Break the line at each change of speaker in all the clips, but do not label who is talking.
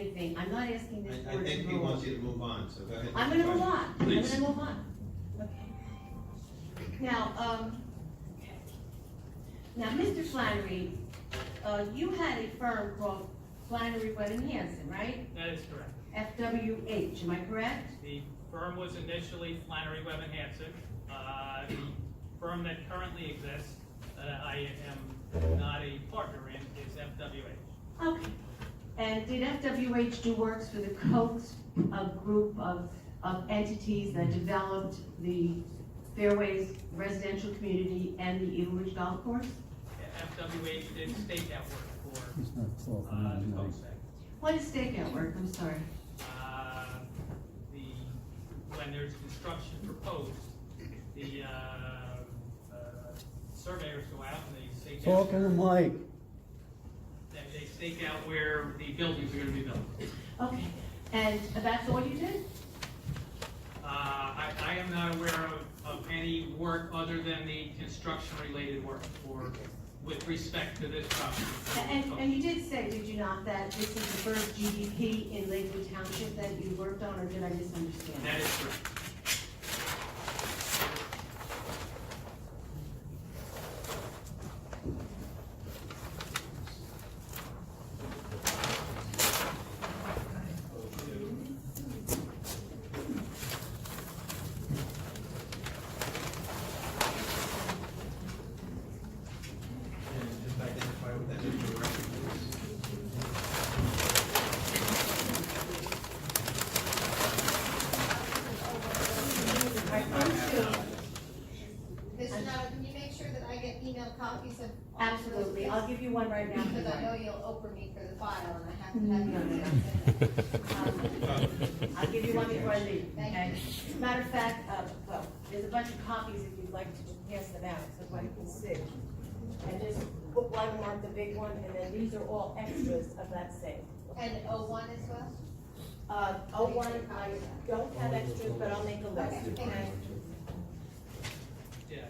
I'm not asking this
I, I
board to
think he
rule.
wants you to move on, so go ahead.
I'm gonna move on, I'm
Please.
gonna move on. Now, um, now, Mr. Flannery, uh, you had a firm called Flannery Wedding Hanson, right?
That is correct.
FWH, am I correct?
The firm was initially Flannery Webb and Hanson. Uh, The firm that currently exists, that I am not a partner in, is FWH.
Okay. And did FWH do works for the Coat, a group of, of entities that developed the Fairways residential community and the Eagle Ridge Golf Course?
FWH did stakeout work
It's
for
not twelve,
uh, the
no, no.
Cosec.
What is stakeout work, I'm sorry?
Uh, The, when there's construction proposed, the uh, uh, surveyors go out and they stake out,
Talk to the mic.
they they stake out where the buildings are gonna be built.
Okay, and that's all you did?
Uh, I, I am not aware of, of any work other than the construction-related work for, with respect to this property.
And, and you did say, did you not, that this is the first GDP in Lakewood Township that you worked on, or did I misunderstand?
That is correct.
And just identify what that is for the record, please.
All right, number two,
Mr. Noah, can you make sure that I get email copies of? all of those,
Absolutely, I'll give you one right now.
Because I know you'll open me for the file and I have to have you. accept it.
Um, I'll give you one before I leave,
Thank
okay? Matter of fact, uh, well, there's a bunch of copies if you'd like to pass them out, so everybody can see.
And just put one, not the big one, and then these are all extras of that same.
And O one as well?
Uh, oh, one, I don't have extras, but I'll make a
Okay,
list.
thank you.
Yeah.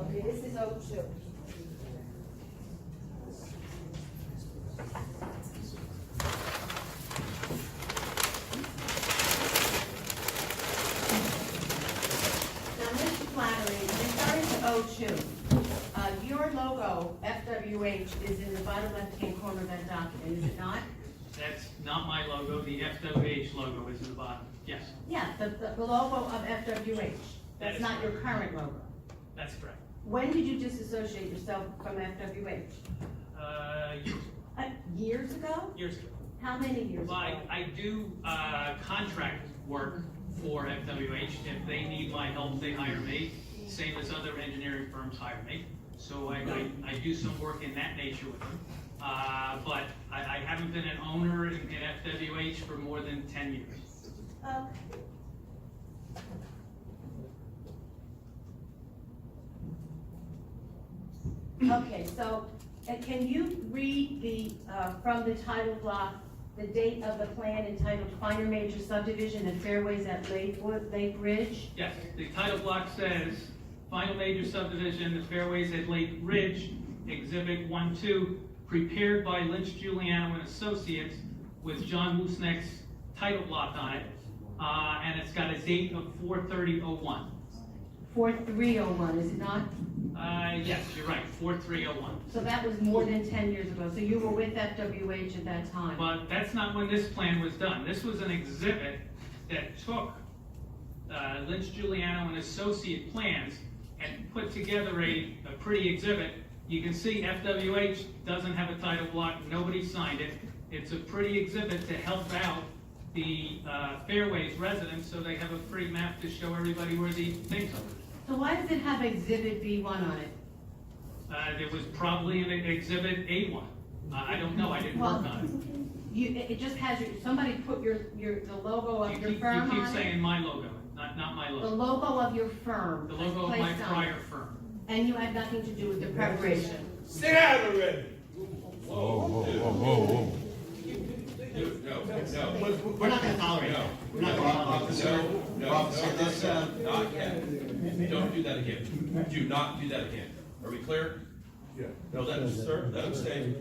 Okay, this is O
oh
two.
Now, Mr. Flannery, referring to O2, oh uh, your logo, FWH, is in the bottom left-hand corner of that document, is it not?
That's not my logo, the FWH logo is in the bottom, yes,
Yeah, the, the the logo of FWH,
That
that's
is
not your current logo.
that's correct.
When did you disassociate yourself from FWH?
Uh, years,
Uh, Years ago?
years ago.
How many years
Well,
ago?
I, I do, uh, contract work for FWH, if they need my help, they hire me, same as other engineering firms hire me. So I, I, I do some work in that nature with them, uh, but I, I haven't been an owner in, in FWH for more than ten years.
Okay. Okay, so, and can you read the, uh, from the title block, the date of the plan entitled Finer Major Subdivision and Fairways at Lakewood, Lake Ridge?
Yes, the title block says, final major subdivision, the fairways at Lake Ridge, exhibit one, two, prepared by Lynch Giuliano and Associates with John Woosnack's title block on it, uh, and it's got a date of four thirty oh one.
Four three oh one, is it not?
Uh, yes, you're right, four three oh one.
So that was more than ten years ago, so you were with FWH at that time?
But that's not when this plan was done. This was an exhibit that took uh, Lynch Giuliano and associate plans and put together a, a pretty exhibit. You can see FWH doesn't have a title block, nobody signed it. It's a pretty exhibit to help out the uh, Fairways residents, so they have a free map to show everybody where the things are.
So why does it have exhibit B one on it?
Uh, There was probably an exhibit A1. I I don't know, I didn't work on it.
You, it, it just has your, somebody put your, your, the logo
You
of your
keep-
firm
You
on
keep
it?
saying my logo, not, not my
The
logo.
logo of your firm.
The
was
logo of my
placed on it,
prior firm.
And you had nothing to do with the preparation.
Sit down already.
Whoa, whoa, whoa, whoa, whoa.
Dude, No, no.
We're- We're we're not gonna tolerate that. We're not gonna tolerate that.
Officer,
No,
no,
Officer,
no,
this,
no,
uh,
Not again. Don't do that again. Do not do that again. Are we clear? Yeah. No, let him, sir, let him stay.